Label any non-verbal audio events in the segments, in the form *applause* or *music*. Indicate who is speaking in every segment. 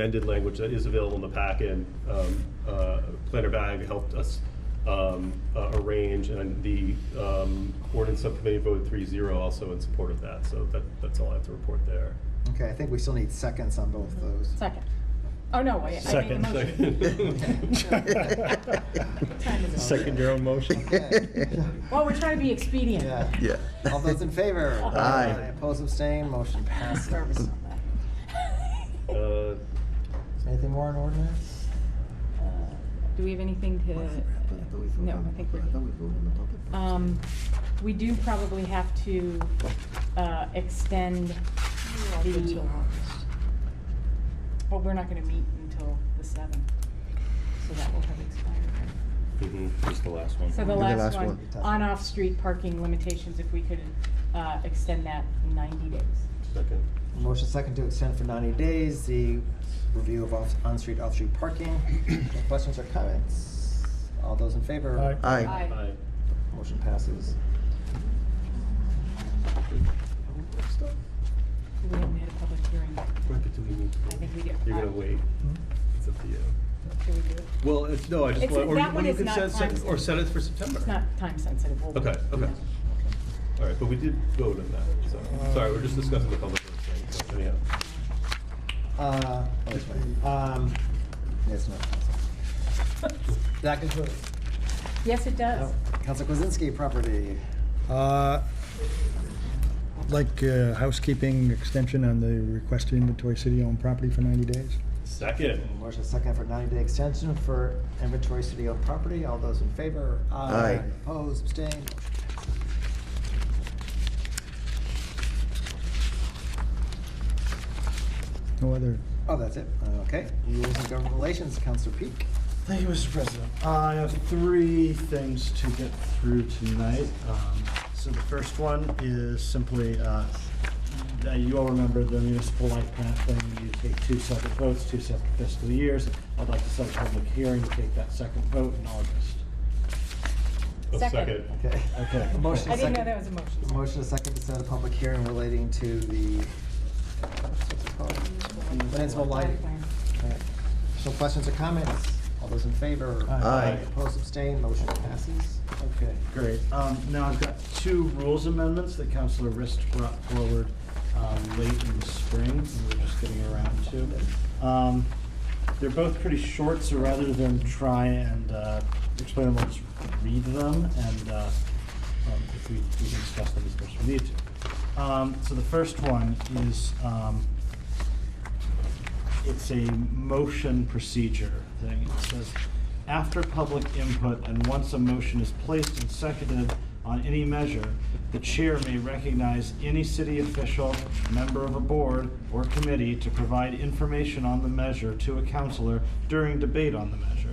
Speaker 1: amended language that is available in the packet. Um, uh, Planner Bag helped us um, uh, arrange, and the um, ordinance subcommittee voted 3-0 also in support of that. So that, that's all I have to report there.
Speaker 2: Okay, I think we still need seconds on both those.
Speaker 3: Second. Oh, no, wait. I made a
Speaker 4: Second.
Speaker 3: motion. Time is up.
Speaker 4: Second your own
Speaker 1: *laughs*
Speaker 3: *laughs*
Speaker 4: motion.
Speaker 3: Well, we're trying to be expedient.
Speaker 2: Yeah.
Speaker 3: *laughs*
Speaker 5: Yeah.
Speaker 2: All those in favor?
Speaker 5: Aye.
Speaker 2: Opposed, abstained, motion
Speaker 3: I'm
Speaker 2: passes.
Speaker 3: nervous
Speaker 2: Is
Speaker 3: on that.
Speaker 1: Uh,
Speaker 2: there Anything more on ordinance?
Speaker 3: Do we have anything to, no, I think we're good. Um, we do probably have to, uh, extend the, well, we're not gonna meet until the seventh, so that will have expired.
Speaker 1: mhm.
Speaker 4: Just the last one.
Speaker 3: So the
Speaker 5: And the
Speaker 3: last
Speaker 5: last
Speaker 3: one,
Speaker 5: one.
Speaker 3: on-off-street parking limitations, if we could, uh, extend that ninety days.
Speaker 1: Second.
Speaker 2: Motion second to extend for 90 days, the review of off- on-street, off-street parking. No Questions or comments? All those in favor?
Speaker 4: Aye.
Speaker 5: Aye.
Speaker 1: Aye.
Speaker 2: Motion passes.
Speaker 3: Oh, We haven't had a public hearing.
Speaker 1: Right, but do we need to-
Speaker 3: I think we do.
Speaker 1: You're gonna wait. It's up to you.
Speaker 3: Should we do it?
Speaker 1: Well, it's, no, I just
Speaker 3: It's-
Speaker 1: want, or
Speaker 3: that
Speaker 1: you-
Speaker 3: one
Speaker 1: or you
Speaker 3: is
Speaker 1: could
Speaker 3: not
Speaker 1: set, sec-
Speaker 3: time
Speaker 1: or set it for September.
Speaker 3: It's not time sensitive. We'll-
Speaker 1: Okay, okay. All right, but we did vote on that, so, sorry, we're just discussing the public works thing, so anyhow.
Speaker 2: Uh, oh, that's right. Um, yes, no. That concludes.
Speaker 3: Yes, it does.
Speaker 2: Oh, Council Kwasinski, property.
Speaker 4: Uh, Like uh, housekeeping extension on the request to inventory city-owned property for 90 days.
Speaker 1: Second.
Speaker 2: Motion second for 90-day extension for inventory city-owned property. All those in favor?
Speaker 5: Aye.
Speaker 2: Opposed, abstained?
Speaker 4: No other,
Speaker 2: Oh, that's it. Okay. Rules and government relations, Counselor Peak.
Speaker 6: Thank you, Mr. President. I have three things to get through tonight. Um, So the first one is simply, uh, uh, you all remember the municipal life path thing, you take two separate votes, two separate fiscal years. I'd like to set a public hearing, to take that second vote in August.
Speaker 1: Oh,
Speaker 3: Second.
Speaker 2: Okay.
Speaker 6: Okay.
Speaker 2: A *laughs* Motion
Speaker 3: I didn't
Speaker 2: second-
Speaker 3: know that was a
Speaker 2: a
Speaker 3: motion.
Speaker 2: Motion a second to set a public hearing relating to the, what's it called? Municipal lighting. All right. So questions or comments? All those in favor?
Speaker 5: Aye.
Speaker 2: Opposed, abstained, motion passes.
Speaker 6: Okay, great. Um, Now, I've got two rules amendments that Councilor Rist brought forward um, late in the spring, and we're just getting around to. Um, They're both pretty short, so rather than try and uh, explain them, let's read them, and uh, um, if we we can discuss them as much as we need to. Um, So the first one is um, it's a motion procedure thing. It says, after public input and once a motion is placed and seconded on any measure, the chair may recognize any city official, member of a board or committee to provide information on the measure to a counselor during debate on the measure.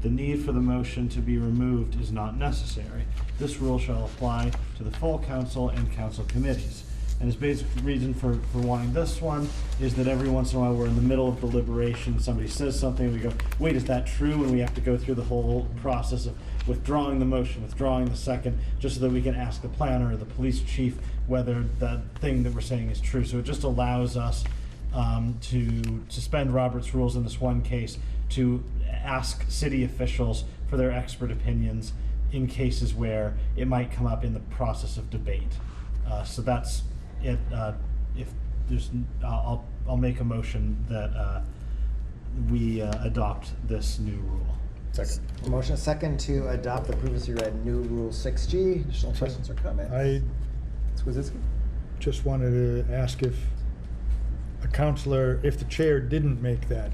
Speaker 6: The need for the motion to be removed is not necessary. This rule shall apply to the full council and council committees. And his basic reason for, for wanting this one is that every once in a while, we're in the middle of deliberation, somebody says something, we go, wait, is that true? And we have to go through the whole process of withdrawing the motion, withdrawing the second, just so that we can ask the planner or the police chief whether that thing that we're saying is true. So it just allows us um, to suspend Robert's rules in this one case, to ask city officials for their expert opinions in cases where it might come up in the process of debate. Uh, so that's it. Uh, if there's, n- I'll, I'll- I'll make a motion that uh, we uh, adopt this new rule.
Speaker 4: second.
Speaker 2: A Motion second to adopt the previously read new Rule 6G. Additional questions or comments?
Speaker 4: I
Speaker 2: Squeezicki?
Speaker 4: just wanted to ask if a counselor, if the chair didn't make that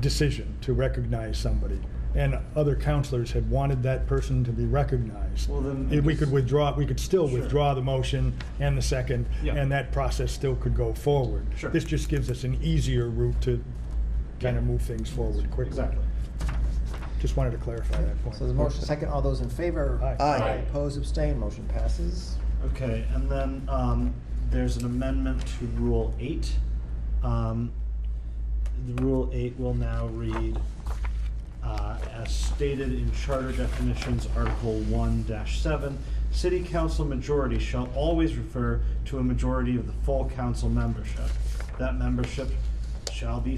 Speaker 4: decision to recognize somebody, and other counselors had wanted that person to be recognized,
Speaker 6: Well, then I
Speaker 4: if we
Speaker 6: guess-
Speaker 4: could withdraw, we could still
Speaker 6: Sure.
Speaker 4: withdraw the motion and the second,
Speaker 6: Yeah.
Speaker 4: and that process still could go forward.
Speaker 6: Sure.
Speaker 4: This just gives us an easier route to kind
Speaker 6: Yeah.
Speaker 4: of move things forward quickly.
Speaker 6: Exactly.
Speaker 4: Just wanted to clarify that point.
Speaker 2: So there's a motion second. All those in favor?
Speaker 4: Aye.
Speaker 5: Aye.
Speaker 2: Opposed, abstained, motion passes.
Speaker 6: Okay, and then um, there's an amendment to Rule 8. Um, the Rule 8 will now read, uh, as stated in Charter definitions, Article 1-7, "City council majority shall always refer to a majority of the full council membership. That membership shall be